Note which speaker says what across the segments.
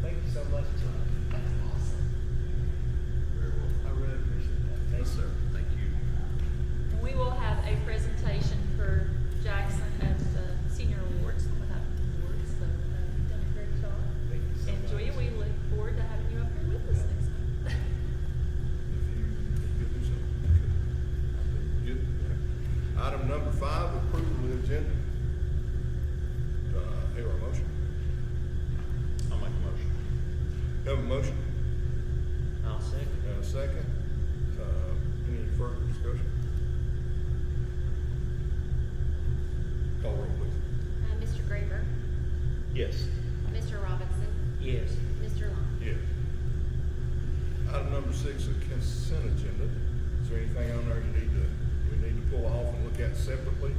Speaker 1: budget. That's awesome.
Speaker 2: Very well.
Speaker 1: I really appreciate that. Thank
Speaker 2: Yes,
Speaker 1: you.
Speaker 2: sir. Thank you.
Speaker 3: And we will have a presentation for Jackson at the senior awards, some of that awards, so uh, you've done a great job.
Speaker 2: Thank you so
Speaker 3: And Joya,
Speaker 2: much.
Speaker 3: we look forward to having you up here with us next month.
Speaker 4: Good. Item number five, approval of the agenda. Do I hear a motion?
Speaker 2: I'll make a motion.
Speaker 4: Have a motion,
Speaker 5: I'll second.
Speaker 4: and a second. Uh, Any further discussion? Call roll, please.
Speaker 6: Uh, Mr. Graver,
Speaker 2: Yes.
Speaker 6: Mr. Robinson,
Speaker 5: Yes.
Speaker 6: Mr. Long.
Speaker 4: Yes. Item number six, a consent agenda. Is there anything on there you need to, we need to pull off and look at separately?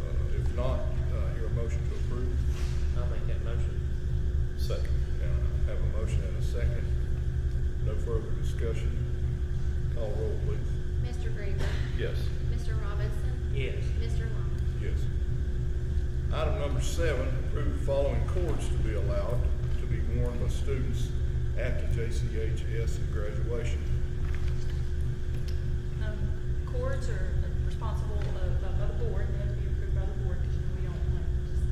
Speaker 4: Uh, If not, uh, hear a motion to approve.
Speaker 5: I'll make that motion.
Speaker 2: Second.
Speaker 4: Now, I have a motion and a second. No further discussion. Call roll, please.
Speaker 6: Mr. Graver,
Speaker 2: Yes.
Speaker 6: Mr. Robinson,
Speaker 5: Yes.
Speaker 6: Mr. Long.
Speaker 4: Yes. Item number seven, approve the following cords to be allowed to be worn by students at the JCHS at graduation.
Speaker 3: Um, Cords are responsible of, uh, by the board, they have to be approved by the board, because we don't want just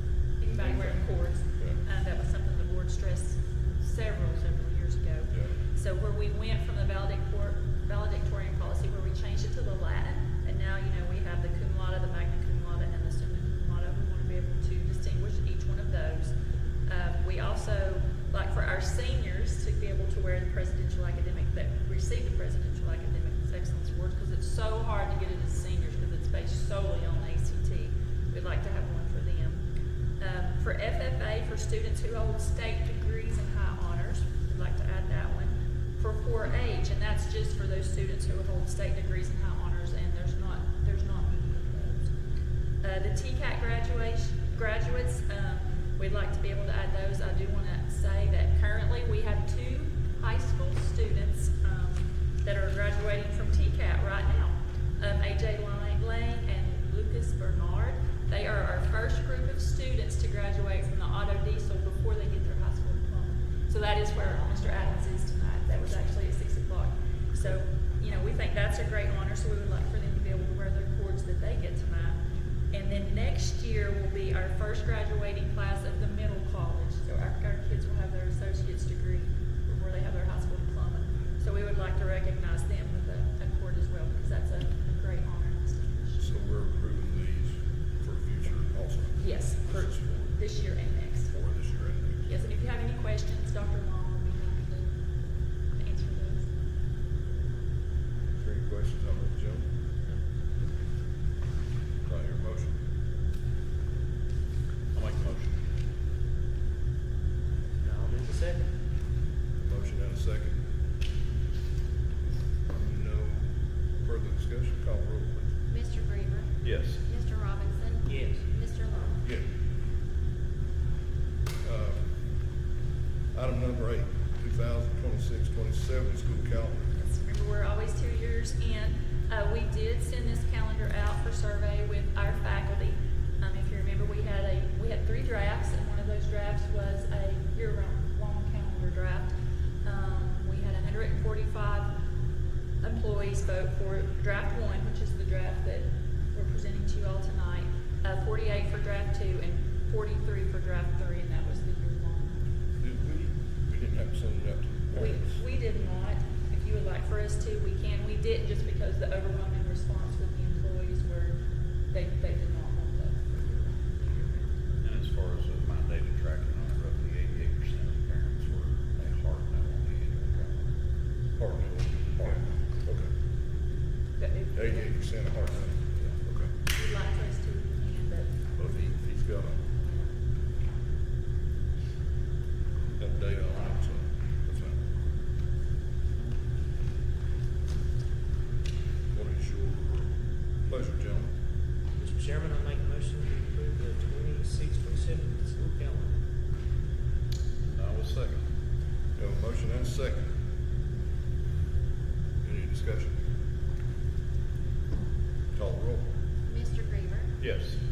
Speaker 3: anybody wearing cords.
Speaker 4: Yeah.
Speaker 3: Uh, that was something the board stressed several, several years ago.
Speaker 4: Yeah.
Speaker 3: So where we went from the valedictor- valedictorian policy, where we changed it to the Latin, and now, you know, we have the cum laude, the magna cum laude, and the summa cum laude. We want to be able to distinguish each one of those. Um, we also, like for our seniors, to be able to wear the presidential academic, that receive the presidential academic excellence awards, because it's so hard to get it as seniors, because it's based solely on ACT. We'd like to have one for them. Um, for FFA, for students who hold state degrees and high honors, we'd like to add that one. For 4-H, and that's just for those students who hold state degrees and high honors, and there's not, there's not many of those. Uh, the TCAT graduation, graduates, um, we'd like to be able to add those. I do want to say that currently we have two high school students, um, that are graduating from TCAT right now. Um, AJ Lane- Lane and Lucas Bernard. They are our first group of students to graduate from the auto diesel before they get their high school diploma. So that is where Mr. Adams is tonight. That was actually at six o'clock. So, you know, we think that's a great honor, so we would like for them to be able to wear their cords that they get tonight. And then next year will be our first graduating class of the middle college. So our, our kids will have their associate's degree before they have their high school diploma. So we would like to recognize them with a, a cord as well, because that's a, a great honor and distinction.
Speaker 4: So we're approving these for future also.
Speaker 3: Yes, for
Speaker 4: This is for-
Speaker 3: this year and next.
Speaker 4: for this year and next.
Speaker 3: Yes, and if you have any questions, Dr. Long will be happy to answer those.
Speaker 4: Is there any questions on the agenda? Do I hear a motion?
Speaker 2: I'll make a motion.
Speaker 5: I'll do the second.
Speaker 4: Motion and a second. No further discussion, call roll please.
Speaker 6: Mr. Graver,
Speaker 2: Yes.
Speaker 6: Mr. Robinson,
Speaker 5: Yes.
Speaker 6: Mr. Long.
Speaker 4: Yeah. Uh, Item number eight, 2026-27 school calendar.
Speaker 3: Yes, remember, we're always two years in. Uh, we did send this calendar out for survey with our faculty. Um, if you remember, we had a, we had three drafts, and one of those drafts was a year-round, long calendar draft. Um, we had hundred and forty-five employees vote for draft one, which is the draft that we're presenting to you all tonight, uh, forty-eight for draft two, and forty-three for draft three, and that was the year-long.
Speaker 4: Did we, we didn't have to send it out to the
Speaker 3: We,
Speaker 4: parents?
Speaker 3: we did not. If you would like for us to, we can. We didn't just because the overwhelming response with the employees were, they, they did not want that.
Speaker 2: And as far as the mandated tracking on it, roughly eighty-eight percent of parents were a hard no on the annual calendar.
Speaker 4: Hard no. Hard no. Okay.
Speaker 3: But if you
Speaker 4: Eighty-eight percent hard no. Okay.
Speaker 3: would like for us to, we can, but,
Speaker 4: Well, he, he's got a, got data on it, so that's fine. What is your pleasure, gentlemen?
Speaker 5: Mr. Chairman, I make a motion to approve the twenty-six, twenty-seven school calendar.
Speaker 2: I will second.
Speaker 4: You have a motion and a second. Any discussion? Call the roll.
Speaker 6: Mr. Graver,
Speaker 2: Yes.